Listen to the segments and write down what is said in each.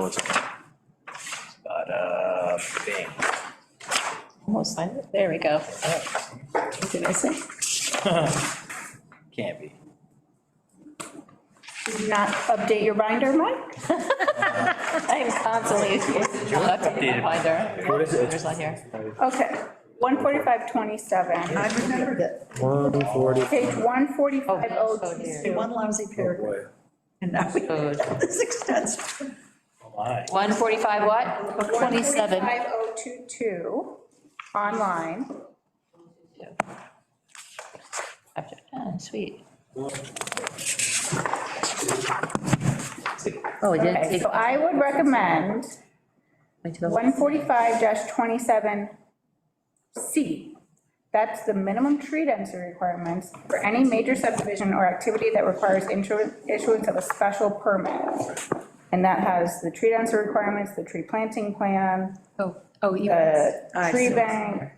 was it? But, uh, bang. Almost signed it, there we go. Did I say? Can't be. Did you not update your binder, Mike? I am constantly updating my binder. What is it? There's on here. Okay, 14527, I remember that, One forty, page Oh, yes, oh 14502. dear. one lousy paragraph, boy. and now we Code. have this extensive. Oh, my. 145 what? 27. 145.022, online. Ah, Sweet. Oh, it did Okay, take, so I would recommend went to the- 145-27C. That's the minimum tree density requirements for any major subdivision or activity that requires intro- issuance of a special permit. And that has the tree density requirements, the tree planting plan, Oh, oh, you, the I tree see. bank,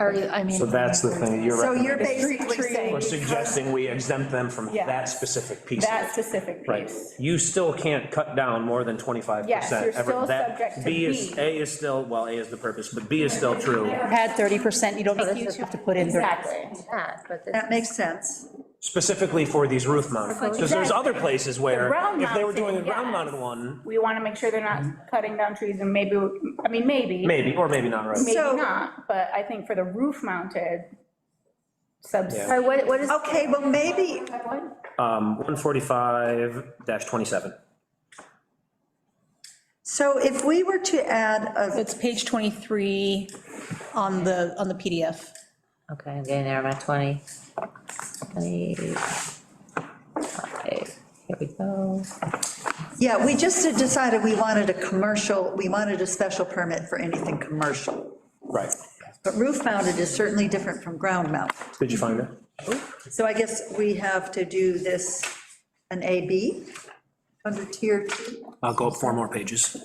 are you, I mean. So that's the thing, you're So you're recommending, basically Tree- we're saying, suggesting we exempt them from Yeah. that specific piece. that specific Right, piece. you still can't cut down more than twenty-five percent. Yes, you're still subject to B is, B. A is still, well, A is the purpose, but B is still true. had 30%, you don't necessarily have to put in 30. Exactly. that, but this- that makes sense. Specifically for these roof mounted ones, because there's other places where, round if they were doing a mounted, yes. ground mounted one, We want to make sure they're Mm-hmm. not cutting down trees and maybe, I mean, maybe. maybe, or maybe not, right? Maybe So- not, but I think for the roof mounted subs. Yeah. Sorry, what, what is, Okay, well, maybe, Um, one forty-five twenty-seven. so if we were to add a, It's page 23 on the, on the PDF. okay, I'm getting there, I'm at 20. 20. Here we go. yeah, we just had decided we wanted a commercial, we wanted a special permit for anything commercial. Right. But roof mounted is certainly different from ground mounted. Did you find it? So I guess we have to do this, an AB, under tier two, I'll go up four more pages.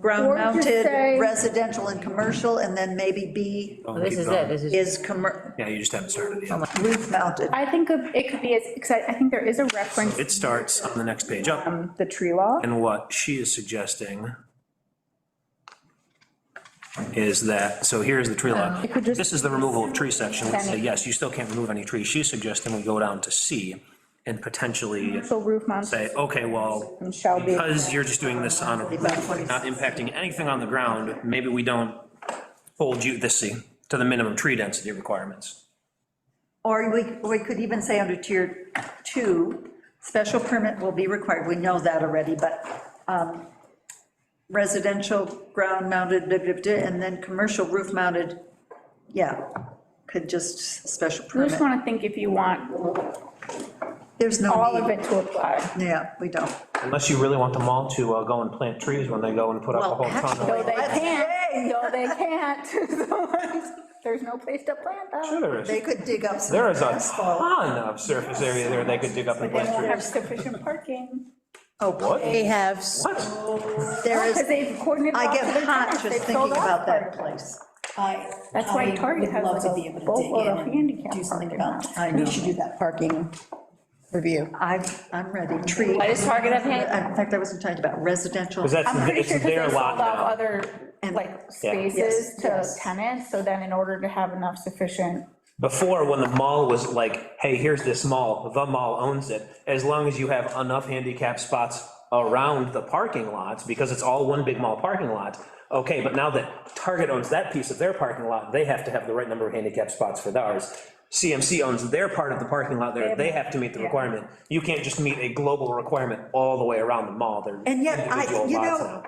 ground Or just mounted, say- residential and commercial, and then maybe B Well, This is it, this is, is commer, Yeah, you just haven't started yet. roof mounted. I think of- it could be, as because I I think there is a reference It starts on the next page up, to the tree law. and what she is suggesting is that, so here's the tree line. could just- This is the removal of tree section. Let's say, yes, you still can't remove any trees. She's suggesting we go down to C and potentially So roof mounted say, okay, well, shall be. because you're just doing this on, a roof, not impacting anything on the ground, maybe we don't hold you, this C, to the minimum tree density requirements. Or we, we could even say under tier two, special permit will be required, we know that already, but um, residential ground mounted, blah, blah, blah, and then commercial roof mounted, yeah, could just special You just permit. want to think if you want There's no all of need. it to apply. Yeah, we don't. Unless you really want them all to uh, go and plant trees when they go and put up a Well, whole ton of. No, they Let's can't, no, they can't. There's no place to plant them. Sure there They is. could dig up some There is a asphalt. ton of surface area there they could dig up and They won't plant have trees. sufficient parking. Oh, What? They have, What? There Because is, they've coordinated. I all of get their hot tenants. just They've thinking sold off about that parking. place. I, That's why Target has like a boatload of handicap parking. I we know, should do that parking review. I, I'm ready, tree. Why does Target have hand- In fact, I wasn't talking about residential. Because that's, I'm pretty it's sure because they their sold lot off now. other, And- like, Yeah. Yes, spaces to yes. tenants, so then in order to have enough sufficient, Before, when the mall was like, hey, here's this mall, the mall owns it, as long as you have enough handicap spots around the parking lots, because it's all one big mall parking lot, okay, but now that Target owns that piece of their parking lot, they have to have the right number of handicap spots for theirs. CMC owns their part of the parking lot there, they have to meet the requirement. You can't just meet a global requirement all the way around the mall, they're And yet, I, individual you lots know, now.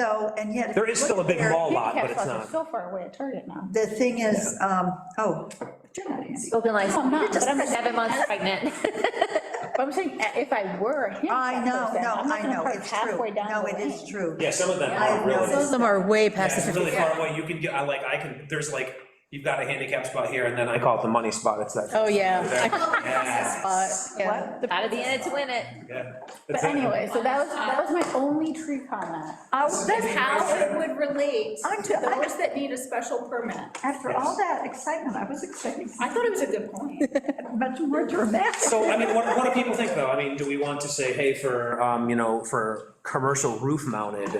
though, and yet. if There you is look still a at big their- mall lot, but handicap it's spots are not. so far away at Target now. The thing is, um, oh, open like, Oh, I'm not, but I'm- seven months pregnant. But I'm saying, uh, if I were a I handicap know, person, no, I'm not I gonna know, park it's halfway true. down No, the it is lane. true. Yeah, some of them I are really. know. Some are way past It's the really far away, you can get, I like, I can, there's like you've got a handicap spot here, and then I call it the money spot, it's that. Oh, yeah. Yeah, What? Out of the end to win it. yeah. But anyway, so that was, that was my only tree comment. Oh, That's how it would relate I'm to to- those that need a special permit. After all that excitement, I was expecting I thought it was a good point. something much more dramatic. So, I mean, what, what do people think, though? I mean, do we want to say, hey, for, um, you know, for commercial roof mounted,